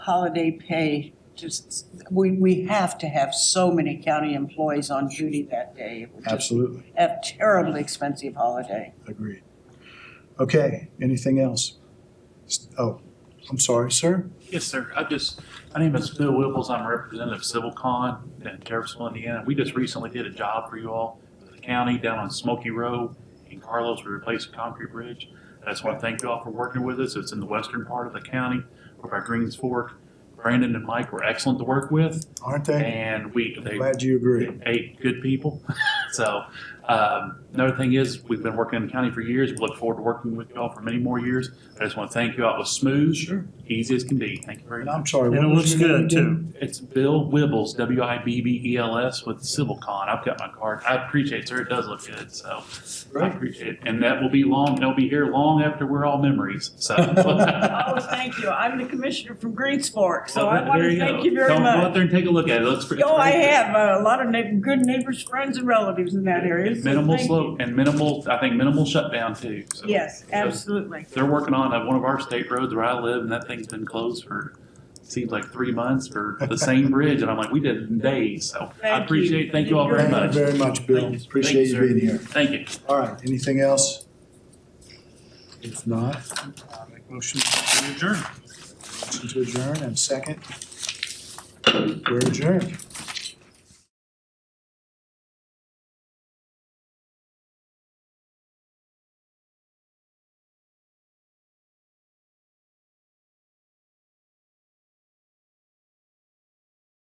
holiday pay, just, we, we have to have so many county employees on duty that day. It would just Absolutely, A terribly expensive holiday. agreed. Okay, anything else? S- Oh, I'm sorry, sir? Yes, sir. I just, my name is Bill Whipples. I'm a representative of CivilCon in Terriffsville, Indiana. We just recently did a job for you all for the county down on Smoky Row in Carlos. We replaced a concrete bridge. I just want to thank you all for working with us. It's in the western part of the county over by Greens Fork. Brandon and Mike were excellent to work with Aren't they? and we, they Glad you agree. eight good people. so um, another thing is we've been working in the county for years. We look forward to working with y'all for many more years. I just want to thank you all. It was smooth, Sure. easy as can be. Thank you very And much. I'm sorry. And it what was looks your name good too. again? It's Bill Wibbles, W I B B E L S, with CivilCon. I've got my card. I appreciate it, sir. It does look good. So Great. I appreciate it. And that will be long. They'll be here long after we're all memories. So Oh, thank you. I'm the commissioner from Greensport, so I Well, want Oh, there to go. thank you very Don't Go out much. there and take a look at it. It looks pretty. Oh, I it's very good. have uh, a lot of neigh- good neighbors, friends and relatives in that area. so Minimal thank slope and minimal, I think minimal shutdown too. you. So- Yes, so absolutely. They're working on uh, one of our state roads where I live and that thing's been closed for, seems like three months for the same bridge. And I'm like, we did it in days. So Thank I you. appreciate, it. thank you all very Thank you much. very much, Bill. Thank you. Appreciate Thank you you, being here. Thank you. All right, anything else? If not, I'll make motion to adjourn. Motion to adjourn and second. We're adjourned.